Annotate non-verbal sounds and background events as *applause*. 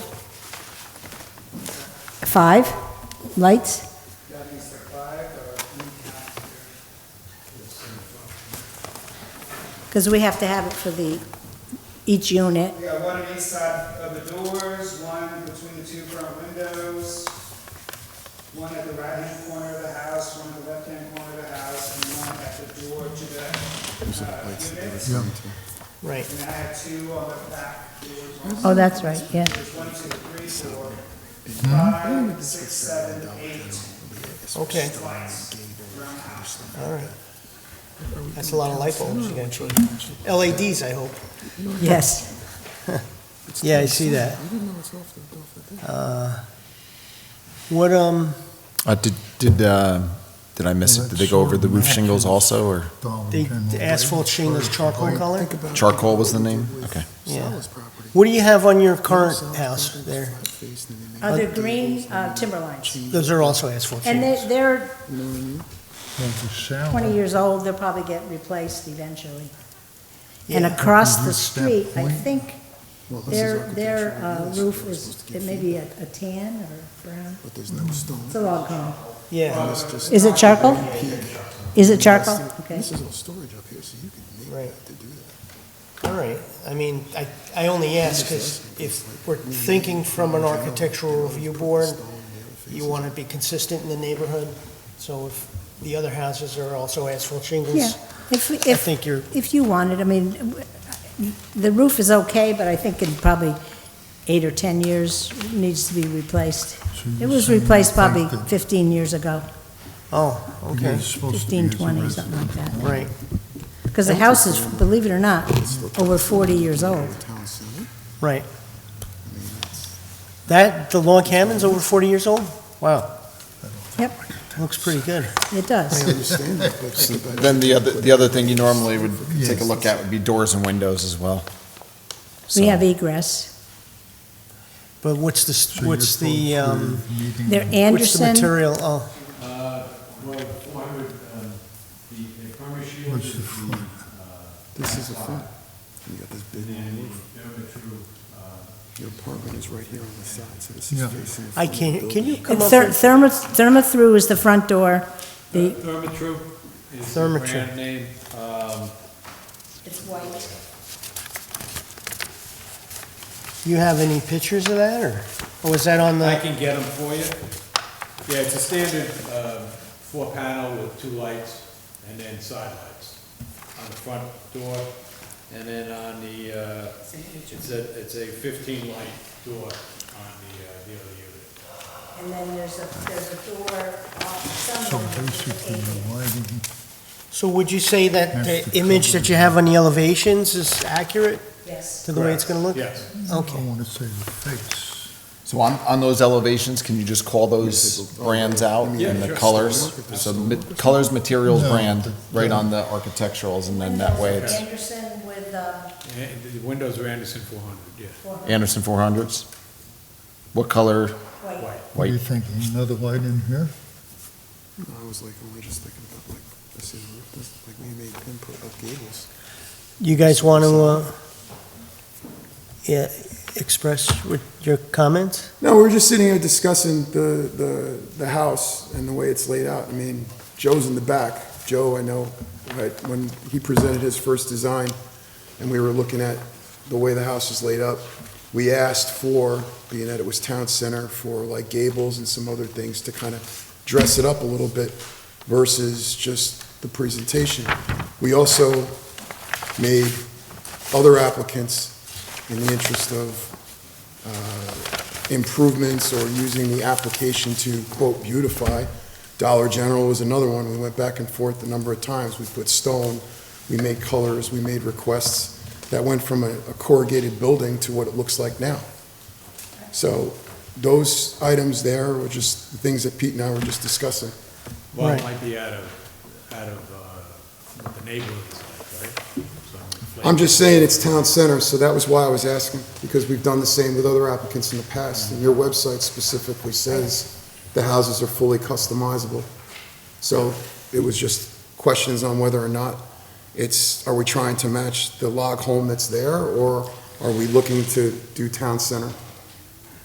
Five lights? That is the five uh, or three counter. Because we have to have it for the, each unit. We got one on each side of the doors, one between the two front windows, one at the right-hand corner of the house, one at the left-hand corner of the house, and one at the door to the, uh, units. Right. And I had two on the back doors. also. Oh, that's right, yeah. There's one, two, three, four, five, six, seven, eight Okay, lights around the house. all right. That's a lot of light bulbs you gotta change. LEDs, I hope. Yes. Yeah, I see that. Uh, What, um, Uh, did, did, uh, did I miss it? Did they go over the roof shingles also, or the the asphalt shingles charcoal color? charcoal was the name? Okay. Yeah. What do you have on your current house there? Are there green uh, timber lines? Those are also asphalt And shingles. they, they're Twenty 20 years old, they'll probably get replaced eventually. And across the street, I think their, their uh, roof is, it may be a a tan or brown. But there's no stone. It's a log home. Yeah, It's just- Is it charcoal? Is it charcoal? Okay. This is all storage up here, so you can make Right. that to do that. all right. I mean, I, I only ask because if we're thinking from an architectural review board, you want to be consistent in the neighborhood. So if the other houses are also asphalt Yeah. shingles, If, I if, think you're, if you wanted, I mean, w- the roof is okay, but I think in probably eight or 10 years it needs to be replaced. It was replaced probably 15 years ago, oh, okay, 15, 20, something like that. right. Because the house is, believe it or not, over 40 years old. Town center, Right. I mean, that's. That, the log cabin's over 40 years old? Wow. Yep. Looks pretty good. It *laughs* I does. understand that, but. but- Then the other, the other thing you normally would take a look at would be doors and windows as well. We So- have egress. But what's the, st- what's the, um, They're what's the Anderson, material? Oh, Uh, Well, 400, um, the the primary shield What's is the the front? This is the uh, front. You got this big and then the roof. Dermatrue, uh, Your apartment is right here on the side, so this is Yeah. facing. I can't, can you come up Ther- with? thermo, therma-through is the front door. The- Thermatrue is the Thermatrue. brand name. Um, It's white. You have any pictures of that, or, or was that on I the, can get them for you. Yeah, it's a standard uh, four panel with two lights and then side lights on the front door. And then on the, uh, it's a, it's a 15 light door on the, uh, the other unit. And then there's a, there's a door So basically, the lighting, so would you say that That's the the image that you have on the elevations is accurate Yes. to the way it's gonna look? Yes. Okay. I want to say the face. So on, on those elevations, can you just call those brands out and the colors? So ma- colors, materials, brand, right on the architecturals, and then that way it's Anderson with, uh, And the windows are Anderson 400, yeah. Anderson 400s. What color? white. What do you White. think, another light in here? No, I was like, only just thinking about like, I see the roof, this, like, we made input of gables. You guys want to, uh, yeah, express what- your comments? No, we we're just sitting here discussing the, the, the house and the way it's laid out. I mean, Joe's in the back. Joe, I know, right, when he presented his first design and we were looking at the way the house is laid up, we asked for, being that it was town center, for like gables and some other things to kind of dress it up a little bit versus just the presentation. We also made other applicants in the interest of, uh, improvements or using the application to, quote, beautify. Dollar General was another one. We went back and forth a number of times. We put stone, we made colors, we made requests. That went from a a corrugated building to what it looks like now. So those items there were just the things that Pete and I were just discussing. Well, Right. it might be out of, out of, uh, what the neighborhood is like, right? So inflate- I'm just saying it's town center, so that was why I was asking, because we've done the same with other applicants in the past, and your website specifically says the houses are fully customizable. So it was just questions on whether or not it's, are we trying to match the log home that's there, or are we looking to do town center?